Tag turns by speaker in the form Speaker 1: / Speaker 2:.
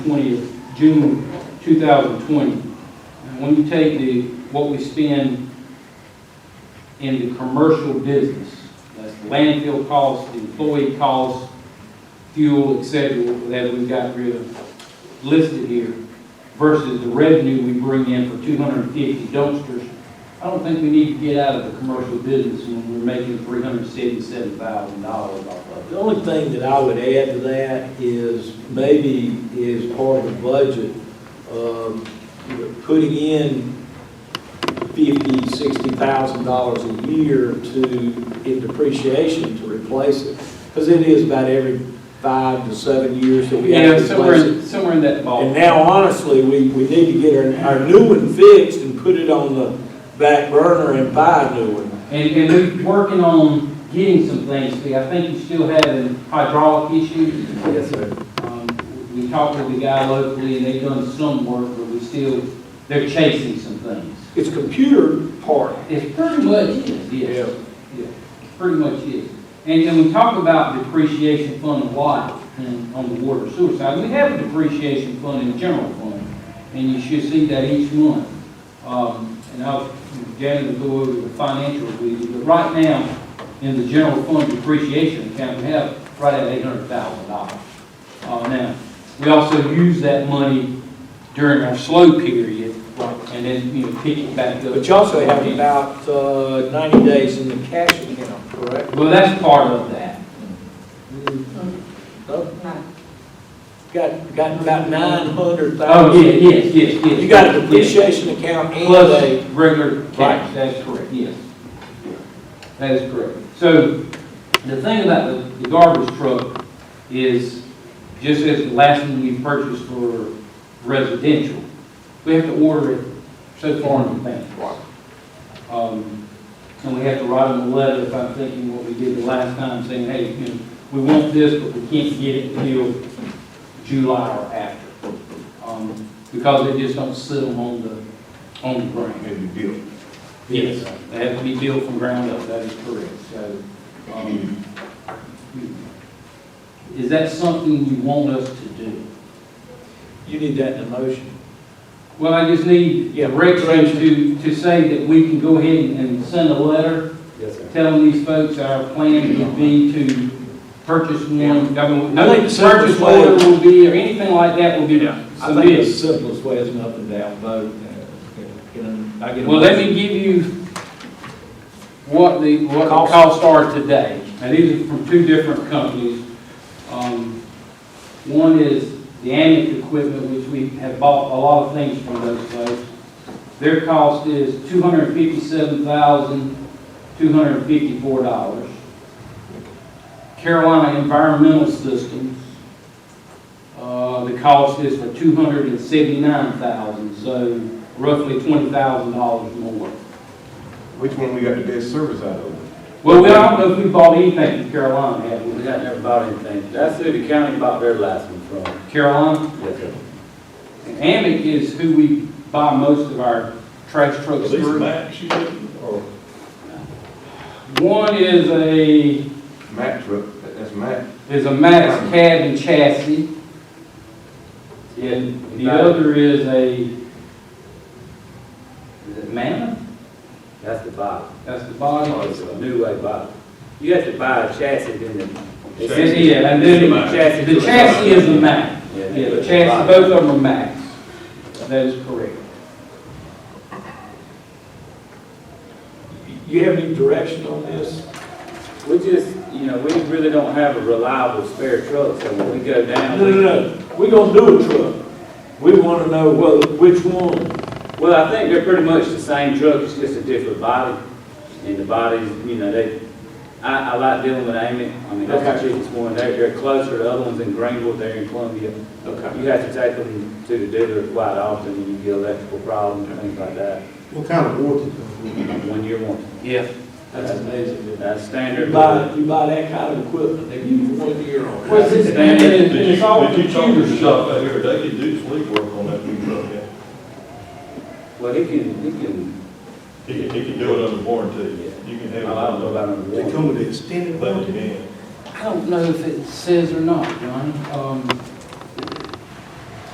Speaker 1: 20th, June 2020. And when you take the, what we spend in the commercial business, that's landfill costs, employee costs, fuel, et cetera, that we've got rid of listed here, versus the revenue we bring in for 250 dumpsters, I don't think we need to get out of the commercial business when we're making $377,000 off of it.
Speaker 2: The only thing that I would add to that is maybe is part of the budget, um, you know, putting in fifty, sixty thousand dollars a year to, in depreciation to replace it. Because it is about every five to seven years that we have
Speaker 1: Yeah,
Speaker 2: to replace
Speaker 1: somewhere,
Speaker 2: it.
Speaker 1: somewhere in that
Speaker 2: And
Speaker 1: ballpark.
Speaker 2: now honestly, we, we need to get our, our new one fixed and put it on the back burner and buy a new one.
Speaker 1: And, and we're working on getting some things, see, I think you're still having hydraulic issues.
Speaker 2: Yes, sir.
Speaker 1: Um, We talked with the guy locally, and they've done some work, but we still, they're chasing some things.
Speaker 2: It's computer part.
Speaker 1: It's pretty much is,
Speaker 2: Yeah.
Speaker 1: yes. Yeah, Pretty much is. And, and we talk about depreciation fund a lot in, on the water sewer side. We have a depreciation fund and a general fund, and you should see that each month. Um, and I'll, Janet will go over the financials with you, but right now, in the general fund depreciation account, we have right at eight hundred thousand dollars. Uh, now, we also use that money during our slow period, and then, you know, pick it back up.
Speaker 2: But you also have about uh, 90 days in the cash account, correct?
Speaker 1: Well, that's part of that.
Speaker 2: No? Got, got about 900,000.
Speaker 1: Oh, yeah, yes, yes, yes.
Speaker 2: You got a
Speaker 1: yes.
Speaker 2: depreciation account and
Speaker 1: Plus
Speaker 2: a,
Speaker 1: regular
Speaker 2: Right.
Speaker 1: cash, that's correct, yes. That is correct. So the thing about the the garbage truck is, just as the last one we purchased for residential, we have to order it so far in advance. Um, And we have to write them a letter, if I'm thinking what we did the last time, saying, hey, you know, we want this, but we can't get it till July or after. Um, Because they just don't sit them on the, on the ground.
Speaker 3: Maybe built.
Speaker 1: Yes, they have to be built from ground up, that is correct, so, um, is that something you want us to do?
Speaker 2: you need that in a motion.
Speaker 1: Well, I just need
Speaker 2: Yeah.
Speaker 1: direction to, to say that we can go ahead and send a letter
Speaker 2: Yes, sir.
Speaker 1: telling these folks our plan would be to purchase one, I mean,
Speaker 2: I
Speaker 1: no
Speaker 2: think the
Speaker 1: purchase
Speaker 2: simplest way-
Speaker 1: order will be, or anything like that will be
Speaker 2: I think the
Speaker 1: submitted.
Speaker 2: simplest way is an up and down vote. uh, you know, I get a
Speaker 1: Well, let
Speaker 2: motion.
Speaker 1: me give you what the, what the
Speaker 2: Cost.
Speaker 1: costs are today. Now, these are from two different companies. Um, One is the Amic equipment, which we have bought a lot of things from those folks. Their cost is two hundred and fifty-seven thousand, two hundred and fifty-four dollars. Carolina Environmental Systems, uh, the cost is for two hundred and seventy-nine thousand, so roughly twenty thousand dollars more.
Speaker 3: Which one we got the best service out of?
Speaker 1: Well, we don't know if we bought anything from Carolina, have we?
Speaker 4: We got never bought anything. That's who the county bought their last one from.
Speaker 1: Carolina,
Speaker 4: Yes, sir.
Speaker 1: Amic is who we buy most of our trash trucks through.
Speaker 3: Max, you did? Or
Speaker 1: One is a,
Speaker 3: Mack truck, That- that's Mack.
Speaker 1: is a Max cab and chassis,
Speaker 4: Yeah.
Speaker 1: and the other is a, is it Mammoth?
Speaker 4: That's the bottom.
Speaker 1: That's the
Speaker 4: Oh,
Speaker 1: body.
Speaker 4: it's a new way bottom. You have to buy a chassis, then the. they
Speaker 1: It's-
Speaker 4: send you-
Speaker 1: Yeah, and then
Speaker 4: The chassis
Speaker 1: the
Speaker 4: to a-
Speaker 1: chassis is the Max.
Speaker 4: Yeah,
Speaker 1: Yeah,
Speaker 4: the
Speaker 1: the chassis, both of them are max. That is correct.
Speaker 2: You have any direction on this?
Speaker 4: We just, you know, we really don't have a reliable spare truck, so when we go down.
Speaker 2: No,
Speaker 4: we-
Speaker 2: no, no, we're gonna do a truck. We wanna know whether, which one.
Speaker 4: Well, I think they're pretty much the same truck, it's just a different body. And the bodies, you know, they, I, I like dealing with Amy. I mean, that's the cheapest one. They're, they're closer, the other one's in Greenville, they're in Columbia.
Speaker 2: Okay.
Speaker 4: You have to take them to the dealer quite often, and you get electrical problems and things like that.
Speaker 3: What kind of warranty?
Speaker 4: One year warranty.
Speaker 1: Yeah.
Speaker 2: That's amazing.
Speaker 4: That's
Speaker 2: You
Speaker 4: standard.
Speaker 2: buy, you buy that kind of equipment, they give you one year on it.
Speaker 1: Well, it's, it's-
Speaker 5: Did you,
Speaker 1: it's all
Speaker 5: did you talk to
Speaker 1: computer
Speaker 5: the
Speaker 1: stuff.
Speaker 5: shop out here, they could do sleep work on that new truck, yeah.
Speaker 4: Well, he can, he can,
Speaker 5: He can, he can do it under warranty, you can
Speaker 4: I
Speaker 5: have it.
Speaker 4: don't know about under
Speaker 3: They
Speaker 4: warranty.
Speaker 3: come with an extended
Speaker 5: But you
Speaker 3: warranty?
Speaker 5: can.
Speaker 1: I don't know if it says or not, Johnny. Um,